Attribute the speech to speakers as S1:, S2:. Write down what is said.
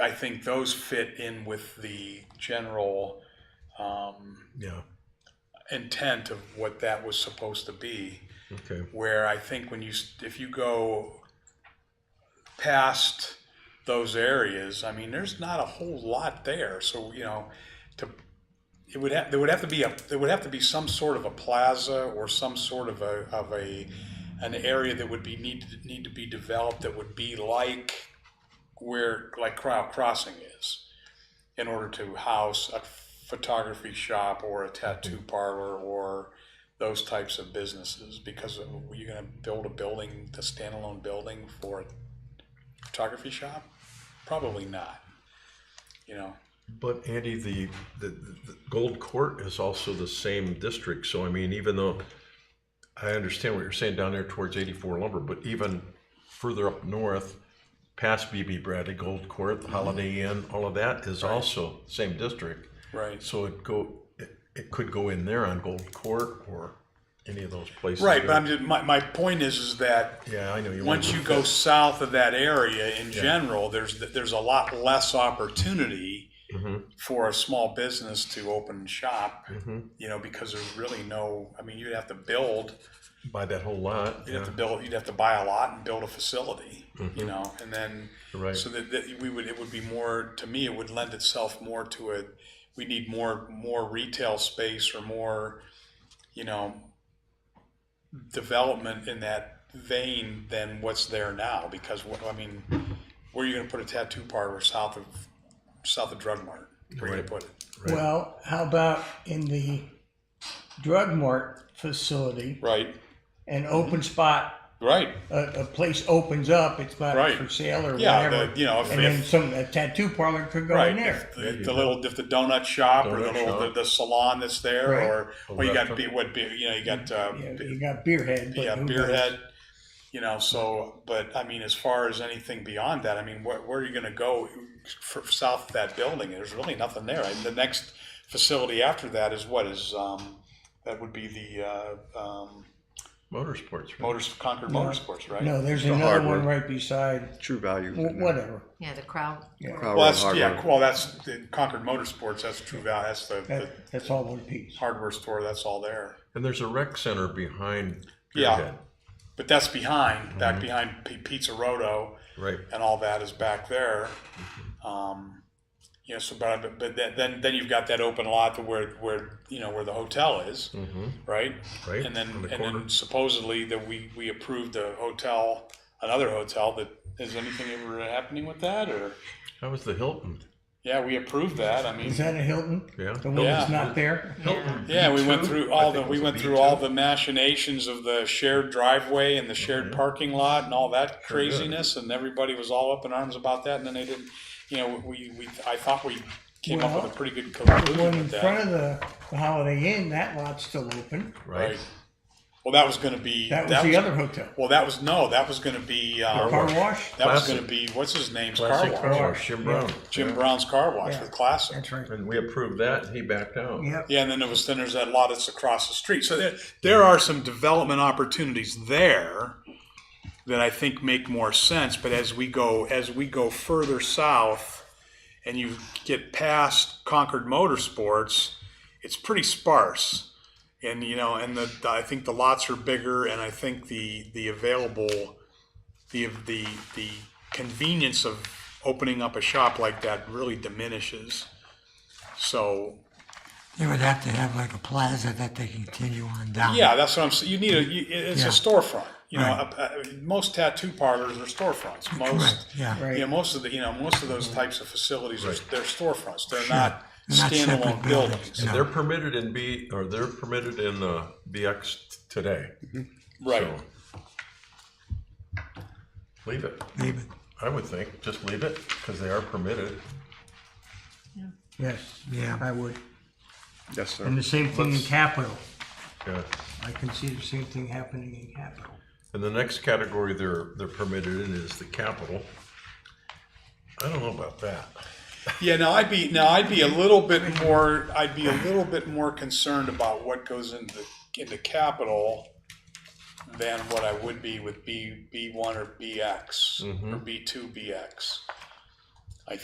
S1: I think those fit in with the general um,
S2: Yeah,
S1: intent of what that was supposed to be.
S2: okay.
S1: Where I think when you s- if you go past those areas, I mean, there's not a whole lot there. So you know, to it would have there would have to be a there would have to be some sort of a plaza or some sort of a of a an area that would be need to need to be developed that would be like where like Crowd Crossing is in order to house a photography shop or a tattoo parlor or those types of businesses because were you going to build a building a standalone building for a photography shop probably not you know
S2: But Andy, the, the, the Gold Court is also the same district, so I mean, even though I understand what you're saying down there towards eighty-four lumber, but even further up north, past BB Bradley, Gold Court, the Holiday
S1: Mm-hmm.
S2: Inn, all of that is also same district.
S1: right
S2: So it go, it, it could go in there on Gold Court or any of those places.
S1: Right, but I'm just, my, my point is, is that
S2: Yeah, I know you.
S1: once
S2: wanna-
S1: you go south of that area in general, there's, there's a lot less opportunity
S2: Mhm,
S1: for a small business to open shop,
S2: mhm.
S1: you know, because there's really no, I mean, you'd have to build,
S2: Buy that whole lot,
S1: you'd have to
S2: yeah,
S1: build, you'd have to buy a lot and build a facility, you
S2: Mhm.
S1: know, and then,
S2: right.
S1: so that, that we would, it would be more, to me, it would lend itself more to a, we need more, more retail space or more, you know, development in that vein than what's there now, because what, I mean, where are you gonna put a tattoo parlor south of, south of Drug Mart? Where are you gonna put
S2: Right.
S1: it?
S2: Right.
S3: Well, how about in the drug mart facility,
S1: Right,
S3: an
S1: Mm-hmm.
S3: open spot,
S1: right,
S3: a, a place opens up, it's not
S1: Right.
S3: for sale or
S1: yeah,
S3: whatever.
S1: the- you know, if,
S3: and then
S1: if,
S3: some a tattoo parlor could go
S1: right,
S3: in there.
S1: if the- the little, if the donut shop or the
S2: Donut
S1: little,
S2: shop.
S1: the- the salon that's there,
S3: Right.
S1: or,
S2: A
S1: or you got,
S2: restaurant.
S1: be- what, be- you know, you got, uh,
S3: Yeah,
S1: be-
S3: you got Beerhead. But
S1: yeah,
S3: who
S1: beer
S3: knows?
S1: head, you know, so, but I mean, as far as anything beyond that, I mean, where, where are you gonna go for, south of that building? There's really nothing there. And the next facility after that is what is, um, that would be the, uh, um,
S2: Motorsports, right?
S1: Motors, Concord Motorsports, right?
S3: No, there's
S4: The
S3: another
S4: hardware.
S3: one right beside.
S4: True value.
S3: wh- Whatever.
S5: Yeah, the crowd.
S3: Yeah.
S4: Crowd
S1: Well,
S4: Road
S1: that's,
S4: Hardware.
S1: yeah, well, that's the Concord Motorsports, that's True Value, that's the, the
S3: That, that's all one piece.
S1: hardware store, that's all there.
S2: And there's a rec center behind
S1: Yeah.
S2: Spearhead,
S1: But that's behind, back behind P- Pizza Roto
S2: right?
S1: and all that is back there. Um, you know, so, but, but then- then, then you've got that open lot to where, where, you know, where the hotel is,
S2: Mm-hmm.
S1: right?
S2: Right.
S1: And
S2: on
S1: then,
S2: the
S1: and then supposedly that we, we approved a hotel, another hotel that, is anything ever happening with that or?
S2: that was the Hilton.
S1: Yeah, we approved that, I mean.
S3: Is that a Hilton?
S2: Yeah.
S3: The one that's not there?
S5: Yeah.
S1: Yeah, we went
S2: B2?
S1: through
S2: I
S1: all the,
S2: think it
S1: we
S2: was a
S1: went through
S2: B2.
S1: all the machinations of the shared driveway and the shared parking lot and all that
S2: Mm-hmm. Sure did.
S1: craziness, and everybody was all up in arms about that, and then they didn't, you know, we, we, I thought we came up with a pretty good
S3: The
S1: conclusion
S3: one in
S1: with
S3: front
S1: that.
S3: of the, the Holiday Inn, that lot's still open.
S2: Right.
S1: Well, that was gonna be.
S3: That was the other hotel.
S1: Well, that was, no, that was gonna be,
S3: Car
S1: um,
S3: wash?
S1: that was
S2: Classic.
S1: gonna be, what's his name's car
S2: Classic car
S1: wash?
S2: wash, Jim Brown.
S1: Jim Brown's Car Wash
S3: Yeah.
S1: with Classic.
S3: That's right.
S2: And we approved that, and he backed out.
S3: Yep.
S1: Yeah, and then there was then there's that lot that's across the street. So there, there are some development opportunities there that I think make more sense. But as we go as we go further south, and you get past Concord Motorsports, it's pretty sparse. And you know, and the I think the lots are bigger, and I think the the available the the the convenience of opening up a shop like that really diminishes. So
S6: They would have to have like a plaza that they continue on down.
S1: Yeah, that's what I'm saying. You need a, you, it- it's a
S6: Yeah.
S1: storefront. You know,
S6: Right.
S1: uh, uh, most tattoo parlors are storefronts. Most,
S6: Correct, yeah.
S1: you
S3: Right.
S1: know, most of the, you know, most of those types of facilities are they're storefronts. They're not
S6: They're not separate
S1: standalone
S6: buildings,
S1: buildings.
S2: And they're permitted in B, or they're permitted in uh, BX t- today.
S1: Right.
S2: So Leave it,
S6: Leave it,
S2: I would think, just leave it, because they are permitted.
S3: Yes,
S6: Yeah.
S3: I would.
S4: Yes,
S3: And
S4: sir.
S3: the same thing in
S2: Let's-
S3: Capitol.
S2: Yeah.
S3: I can see the same thing happening in Capitol.
S2: And the next category they're, they're permitted in is the capital. I don't know about that.
S1: Yeah, now I'd be now I'd be a little bit more I'd be a little bit more concerned about what goes into into capital than what I would be with B B one or BX or B two BX.